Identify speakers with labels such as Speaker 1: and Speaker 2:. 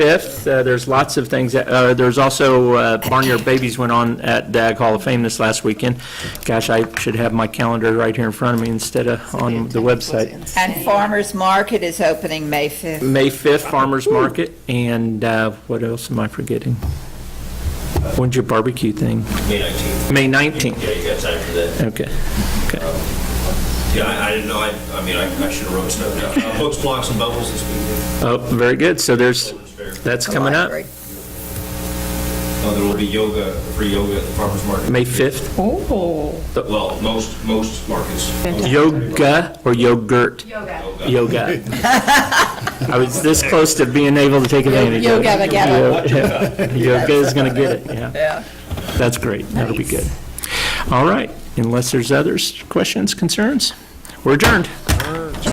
Speaker 1: 5th. Uh, There's lots of things, that- uh, there's also uh, Barnyard Babies went on at DAG Hall of Fame this last weekend. Gosh, I should have my calendar right here in front of me instead of on the website.
Speaker 2: And Farmers Market is opening May 5th.
Speaker 1: May 5th, Farmers Market, and uh, what else am I forgetting? When's your barbecue thing?
Speaker 3: May 19th.
Speaker 1: May 19th,
Speaker 3: Yeah, you got time for that.
Speaker 1: okay.
Speaker 3: Yeah, I, I didn't know, I, I mean, I, I should have wrote snow down. Uh, Books, blocks, and bubbles this weekend.
Speaker 1: Oh, very good, so there's,
Speaker 3: Children's fair.
Speaker 1: that's coming up,
Speaker 2: Library.
Speaker 3: Uh, there will be yoga, free yoga at the farmer's market.
Speaker 1: May 5th.
Speaker 3: Well, most, most markets.
Speaker 1: Yoga or yogurt?
Speaker 3: Yoga.
Speaker 1: Yoga. I was this close to being able to take advantage of it.
Speaker 2: Yoga, yoga.
Speaker 1: Yoga Yoga is going to get it, yeah.
Speaker 2: Yeah.
Speaker 1: That's great, that'll be good. All right, unless there's others, questions, concerns, we're adjourned.